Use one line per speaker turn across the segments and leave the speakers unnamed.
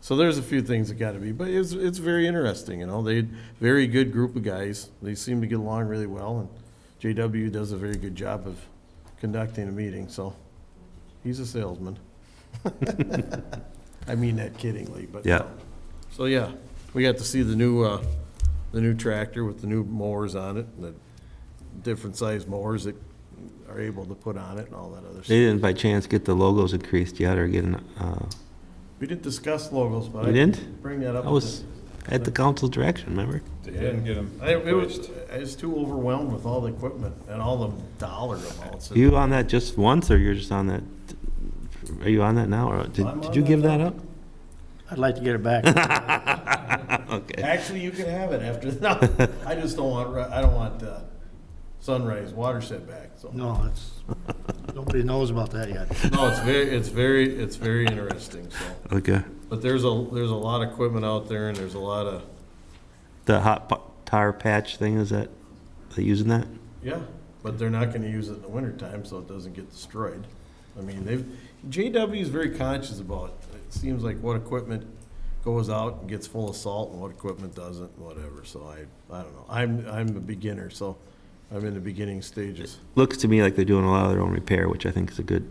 So there's a few things that gotta be, but it's, it's very interesting, you know, they, very good group of guys. They seem to get along really well, and JW does a very good job of conducting a meeting, so he's a salesman. I mean that kiddingly, but.
Yeah.
So, yeah, we got to see the new, uh, the new tractor with the new mowers on it, and the different size mowers that are able to put on it and all that other
They
stuff.
didn't by chance get the logos increased yet or get an, uh,
We didn't discuss logos, but I.
you didn't?
Bring that up.
I was at the council direction, remember?
They didn't get them
I, it was,
pushed.
I was too overwhelmed with all the equipment and all the dollar amounts.
You on that just once or you're just on that, are you on that now or
I'm
did,
on
did you
that
give that
now.
up?
I'd like to get it back.
Okay.
Actually, you can have it after, no, I just don't want, I don't want, uh, sunrise water setback, so.
No, it's, nobody knows about that yet.
No, it's very, it's very, it's very interesting, so.
Okay.
But there's a, there's a lot of equipment out there and there's a lot of,
The hot pa- tar patch thing, is that, they using that?
yeah, but they're not gonna use it in the wintertime, so it doesn't get destroyed. I mean, they've, JW is very conscious about, it It seems like what equipment goes out and gets full of salt and what equipment doesn't, whatever, so I, I don't know. I'm, I'm a beginner, so I'm in the beginning stages.
Looks to me like they're doing a lot of their own repair, which I think is a good,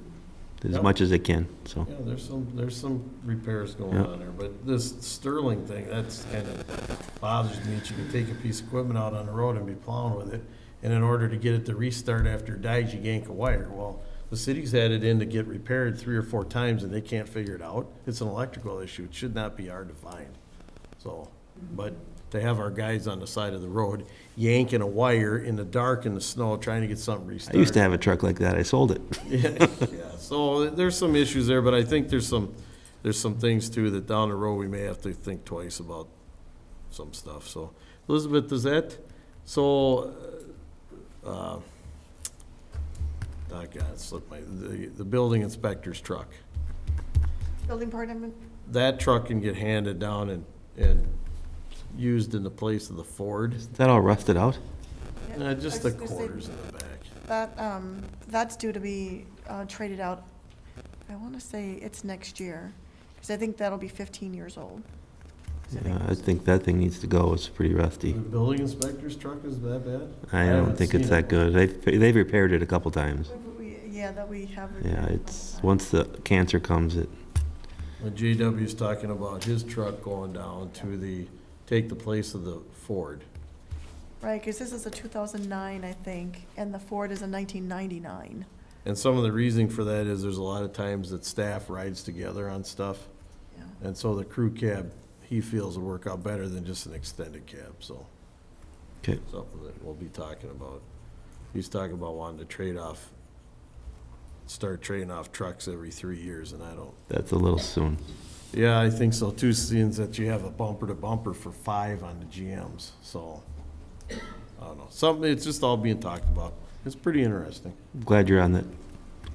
as
Yep.
much as they can, so.
Yeah, there's some, there's some repairs going
Yeah.
on there, but this Sterling thing, that's kind of bothers me, that you can take a piece of equipment out on the road and be plowing with it, and in order to get it to restart after it dies, you yank a wire. Well, the city's had it in to get repaired three or four times, and they can't figure it out. It's an electrical issue, it should not be hard to find, so. But to have our guys on the side of the road yanking a wire in the dark in the snow, trying to get something
I
restarted.
used to have a truck like that, I sold it.
Yeah, yeah. so there's some issues there, but I think there's some, there's some things too that down the road we may have to think twice about some stuff, so. Elizabeth, does that, so, uh, uh, I got, slipped my, the, the building inspector's truck.
Building department,
That truck can get handed down and, and used in the place of the Ford,
Is that all rusted out?
Uh, just the
I was gonna say-
quarters in the back.
that, um, that's due to be uh, traded out, I want to say it's next year, because I think that'll be 15 years old. 'Cause I think-
Yeah, Uh, I think that thing needs to go, it's pretty
The
rusty.
building inspector's truck is that bad?
I
haven't
don't think it's
seen it.
that good. They've, they've repaired it a couple times.
We- Yeah, that we have.
Yeah, it's, once the cancer comes, it,
When JW's talking about his truck going down to the, take the place of the Ford.
Right, because this is a 2009, I think, and the Ford is a 1999.
And some of the reasoning for that is there's a lot of times that staff rides together on stuff.
Yeah.
And so the crew cab, he feels will work out better than just an extended cab, so.
Okay.
Something that we'll be talking about. He's talking about wanting to trade off, start trading off trucks every three years, and I don't.
that's a little soon.
Yeah, I think so too, seeing that you have a bumper to bumper for five on the GMs, so. I don't know, something, it's just all being talked about. It's pretty interesting.
Glad you're on that.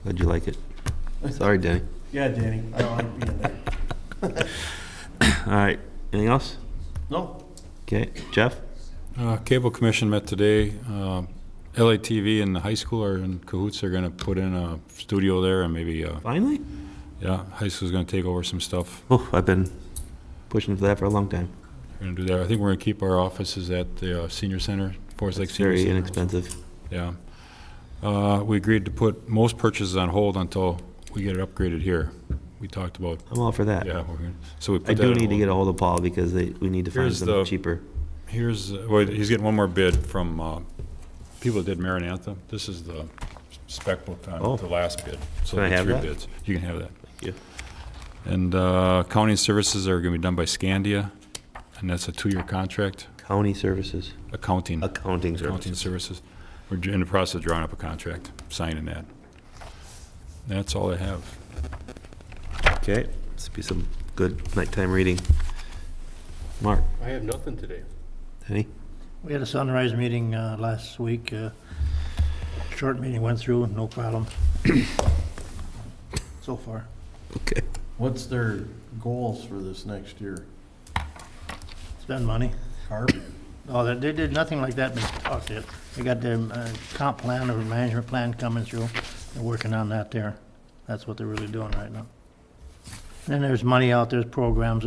Glad you like it. Sorry, Denny.
Yeah, Danny, I like being there.
All right, anything else?
No,
Okay, Jeff?
Uh, Cable Commission met today. Uh, LATV and the high school are in cahoots. They're gonna put in a studio there and maybe, uh,
Finally?
yeah, high school's gonna take over some stuff.
Oh, I've been pushing for that for a long time.
We're gonna do that. I think we're gonna keep our offices at the uh, senior center, Forest Lake
It's
Senior
very
Center.
inexpensive.
Yeah. Uh, We agreed to put most purchases on hold until we get it upgraded here. We talked about,
I'm all for that.
yeah, we're gonna, so we put
I
that on
do need to
hold.
get a hold of Paul because they, we need to find
Here's the-
something cheaper.
Here's, uh, well, he's getting one more bid from uh, people that did Marinantha. This is the spec book
Oh.
on the last bid. So
Can I
the
have
three
that?
bids. You can have that.
you.
And uh, accounting services are going to be done by Scandia, and that's a two-year contract.
County services,
Accounting,
accounting
accounting
services.
services. We're in the process of drawing up a contract, signing that. That's all I have.
Okay, this will be some good nighttime reading. Mark,
I have nothing today.
Denny?
We had a sunrise meeting uh, last week. uh, Short meeting went through, no problem. So far.
Okay.
what's their goals for this next year?
Spend money.
Carp?
No, they- they did nothing like that, but talk to it. They got their uh, comp plan or management plan coming through. They're working on that there. That's what they're really doing right now. And then there's money out, there's programs